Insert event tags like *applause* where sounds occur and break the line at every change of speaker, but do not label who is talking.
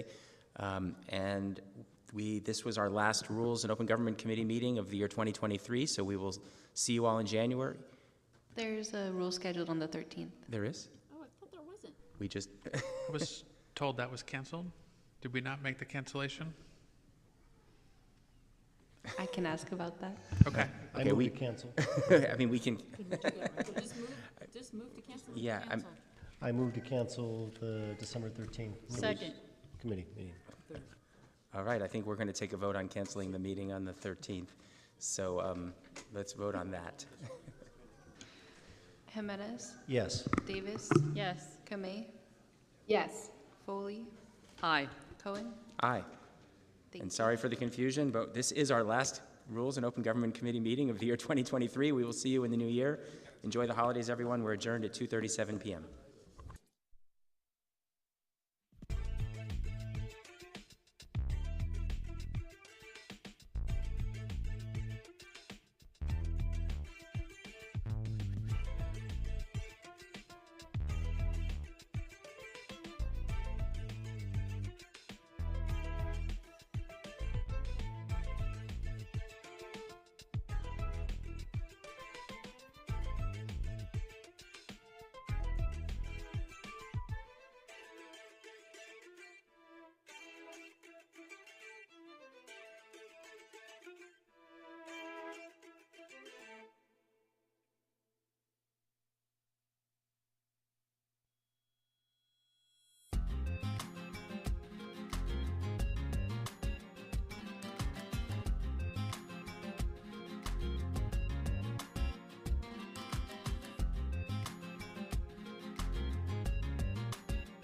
Um, And we, this was our last Rules and Open Government Committee meeting of the year 2023, so we will see you all in January.
There's a rule scheduled on the 13th.
There is?
Oh, I thought there wasn't.
We just, *laughs*
I was told that was canceled. Did we not make the cancellation?
I can ask about that.
Okay.
Okay,
I move
we-
to cancel.
I mean, we can,
Just move, just move to cancel.
Yeah, I'm-
Cancel.
*laughs* I move to cancel the December 13th. rules
Second.
Committee meeting.
all right, I think we're going to take a vote on canceling the meeting on the 13th. So um, let's vote on that.
Jimenez,
Yes.
Davis,
Yes.
Kamei,
Yes.
Foley,
Aye.
Cohen.
Aye.
Thank
And
you.
sorry for the confusion, but this is our last Rules and Open Government Committee meeting of the year 2023. We will see you in the new year. Enjoy the holidays, everyone. We're adjourned at 2:37 PM.